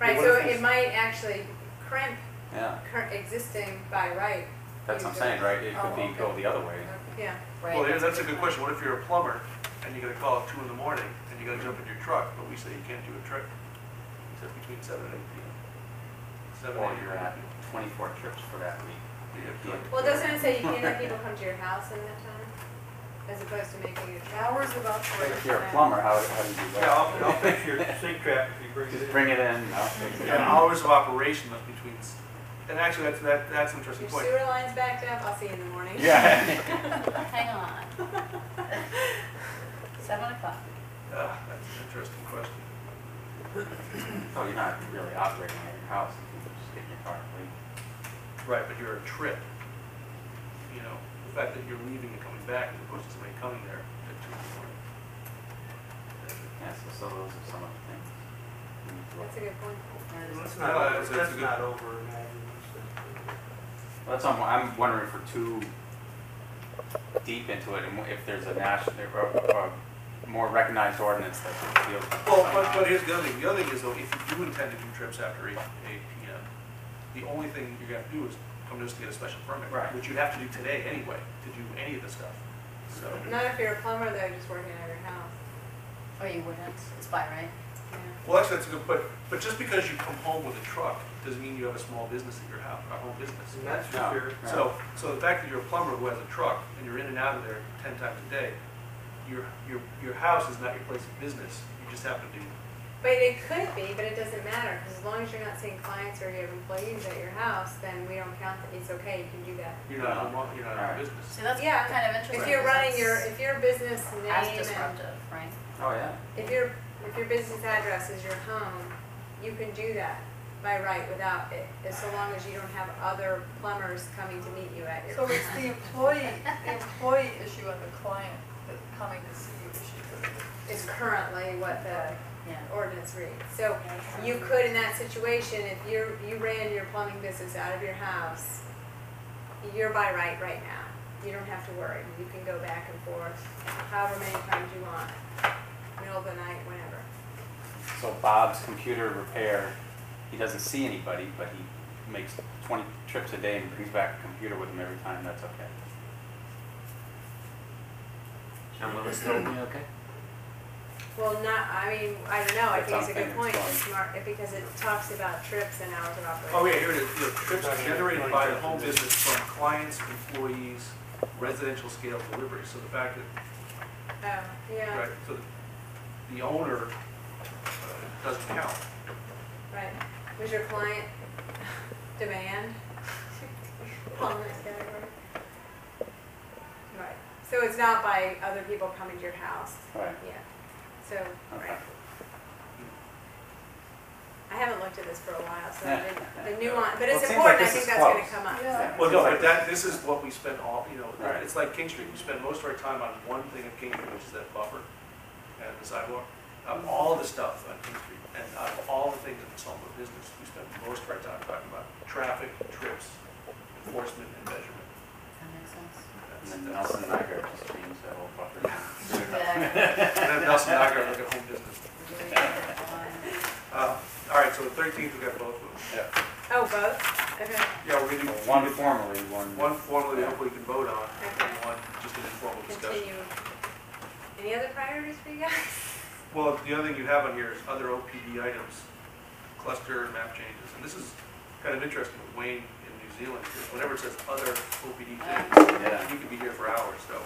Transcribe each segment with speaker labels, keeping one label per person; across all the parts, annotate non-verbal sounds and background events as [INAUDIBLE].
Speaker 1: Right,
Speaker 2: What
Speaker 1: so
Speaker 2: if
Speaker 1: it
Speaker 2: it's-
Speaker 1: might actually crimp
Speaker 2: Yeah,
Speaker 1: current existing by right,
Speaker 2: that's what I'm saying, right? It could
Speaker 1: Oh,
Speaker 2: be,
Speaker 1: okay.
Speaker 2: go the other way.
Speaker 1: yeah.
Speaker 3: right?
Speaker 4: Well, yeah, that's a good question. What if you're a plumber and you get a call at two in the morning and you gotta jump in your truck, but we say you can't do a trick? Except between seven and eight P M. Seven,
Speaker 2: Or
Speaker 4: eight.
Speaker 2: you're at 24 trips for that week.
Speaker 4: Yeah, good.
Speaker 1: Well, doesn't it say you can't have people come to your house in that time? As opposed to making it
Speaker 3: Hours of
Speaker 2: But
Speaker 3: operation.
Speaker 2: if you're a plumber, how, how do you do
Speaker 5: Yeah,
Speaker 2: that?
Speaker 5: I'll, I'll fix your sink trap if you bring it in.
Speaker 2: Just bring it in, I'll fix it.
Speaker 4: Yeah, hours of operation must be between, s- and actually, that's, that, that's an interesting
Speaker 1: Your
Speaker 4: point.
Speaker 1: sewer line's backed up, I'll see you in the morning. [LAUGHS]
Speaker 2: Yeah.
Speaker 5: [LAUGHS]
Speaker 3: Hang on. Seven o'clock.
Speaker 4: Ah, that's an interesting question.
Speaker 2: So Oh, you're not really operating at your house, you can just get in your car and leave.
Speaker 4: Right, but you're a trip. You know, the fact that you're leaving and coming back as opposed to somebody coming there at two in the morning.
Speaker 2: Yeah, so, so those are some of the things. we need to look
Speaker 1: That's a good point.
Speaker 5: That's
Speaker 4: No,
Speaker 5: not,
Speaker 4: that's- that's
Speaker 5: over-
Speaker 4: a
Speaker 5: that's
Speaker 4: good-
Speaker 5: not over imagining stuff.
Speaker 2: That's, I'm, I'm wondering if we're too deep into it, and if there's a national, or, or more recognized ordinance that deals with.
Speaker 4: Well, but, but here's the other thing, the other thing is though, if you do intend to do trips after eight, eight P M, the only thing you're gonna have to do is come to us to get a special permit.
Speaker 2: Right.
Speaker 4: Which you'd have to do today anyway, to do any of the stuff, so.
Speaker 1: Not if you're a plumber though, just working at your house.
Speaker 3: Or Oh, you wouldn't, it's by right.
Speaker 1: Yeah.
Speaker 4: Well, actually, that's a good, but, but just because you come home with a truck, doesn't mean you have a small business at your house, a home business.
Speaker 5: And that's
Speaker 2: No.
Speaker 5: for sure.
Speaker 2: Yeah.
Speaker 4: So, so the fact that you're a plumber who has a truck and you're in and out of there ten times a day, your, your, your house is not your place of business. You just happen to,
Speaker 1: But it could be, but it doesn't matter, because as long as you're not seeing clients or you have employees at your house, then we don't count that, it's okay, you can do that.
Speaker 4: you're not, a mo- you're not
Speaker 2: Alright.
Speaker 4: in business.
Speaker 3: So that's
Speaker 1: Yeah,
Speaker 3: kind of interesting.
Speaker 1: If you're running your,
Speaker 3: because
Speaker 1: if your business name
Speaker 3: that's As
Speaker 1: and,
Speaker 3: disruptive, right?
Speaker 2: Oh, yeah.
Speaker 1: if your, if your business address is your home, you can do that by right without it, as so long as you don't have other plumbers coming to meet you at your.
Speaker 6: So it's
Speaker 3: [LAUGHS]
Speaker 1: home.
Speaker 6: the employee, the employee issue and the client that's coming to see you issue.
Speaker 1: Is currently what the
Speaker 3: Yeah.
Speaker 1: ordinance reads. So you could, in that situation, if you, you ran your plumbing business out of your house, you're by right right now. You don't have to worry. You can go back and forth however many times you want, middle of the night, whenever.
Speaker 2: So Bob's computer repair, he doesn't see anybody, but he makes 20 trips a day and brings back a computer with him every time, that's okay.
Speaker 7: And will it still be okay?
Speaker 1: Well, not, I mean, I don't know, I think it's a good
Speaker 2: Something
Speaker 1: point,
Speaker 2: that's
Speaker 1: smart, because it talks about trips and hours of operation.
Speaker 4: Oh, yeah, here it is. You know, trips are generated by the home business from clients, employees, residential scale delivery. So the fact that,
Speaker 1: Oh, yeah,
Speaker 4: right, so the- the owner uh, doesn't count.
Speaker 1: right. Was your client
Speaker 2: [LAUGHS]
Speaker 1: demand? On that category? Right, so it's not by other people coming to your house,
Speaker 2: Right,
Speaker 1: yeah, so,
Speaker 2: okay.
Speaker 1: right. I haven't looked at this for a while, so
Speaker 2: Yeah.
Speaker 1: the- the nuance, but
Speaker 2: Well,
Speaker 1: it's
Speaker 2: it seems like
Speaker 1: important, I
Speaker 2: this
Speaker 1: think
Speaker 2: is
Speaker 1: that's gonna
Speaker 2: close.
Speaker 1: come up.
Speaker 6: Yeah.
Speaker 4: Well, no, but that, this is what we spend all, you know,
Speaker 2: Right.
Speaker 4: it's like King Street, we spend most of our time on one thing of King Street, which is that buffer and the sidewalk. Of all the stuff on King Street, and out of all the things in the Somerville business, we spend most of our time talking about traffic, trips, enforcement, and measurement.
Speaker 3: That makes sense.
Speaker 4: That's-
Speaker 2: And then
Speaker 4: that's-
Speaker 2: Nelson and I go just change that whole fucker.
Speaker 3: Yeah.
Speaker 4: And then Nelson Agger, look at home business.
Speaker 3: Yeah.
Speaker 4: Uh, all right, so the thirteenth, we got both of them.
Speaker 2: Yeah.
Speaker 1: Oh, both? Okay,
Speaker 4: Yeah, we're gonna do
Speaker 2: One
Speaker 4: one,
Speaker 2: formally, one.
Speaker 4: one formally, hopefully you can vote on, and
Speaker 1: Okay.
Speaker 4: one, just an informal discussion.
Speaker 1: continue. Any other priorities for you guys?
Speaker 4: Well, the other thing you have on here is other OPD items, cluster and map changes, and this is kind of interesting with Wayne in New Zealand, because whenever it says other OPD things,
Speaker 2: Yeah.
Speaker 4: you could be here for hours, so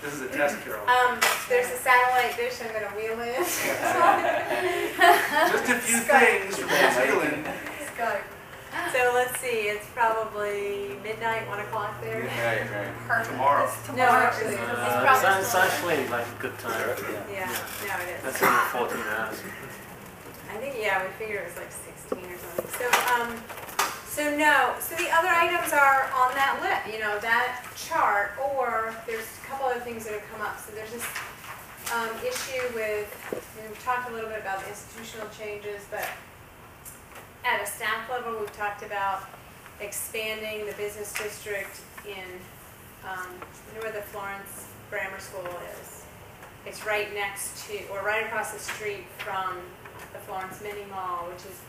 Speaker 4: this is a test, Carol.
Speaker 1: Um, there's a satellite dish I'm gonna wheel in. [LAUGHS]
Speaker 4: Just a few things from New Zealand.
Speaker 6: Skype.
Speaker 1: So let's see, it's probably midnight, one o'clock there.
Speaker 2: Right, right.
Speaker 3: Perfect.
Speaker 4: Tomorrow.
Speaker 1: No, actually, it's
Speaker 7: Uh,
Speaker 1: probably
Speaker 7: it's
Speaker 1: still.
Speaker 7: actually like a good time.
Speaker 1: Yeah, no, it is.
Speaker 7: That's only 14 hours.
Speaker 1: I think, yeah, we figured it was like sixteen or something. So, um, so no, so the other items are on that list, you know, that chart, or there's a couple other things that have come up. So there's this, um, issue with, we've talked a little bit about the institutional changes, but at a staff level, we've talked about expanding the business district in, um, you know where the Florence Grammar School is? It's right next to, or right across the street from the Florence Mini Mall, which is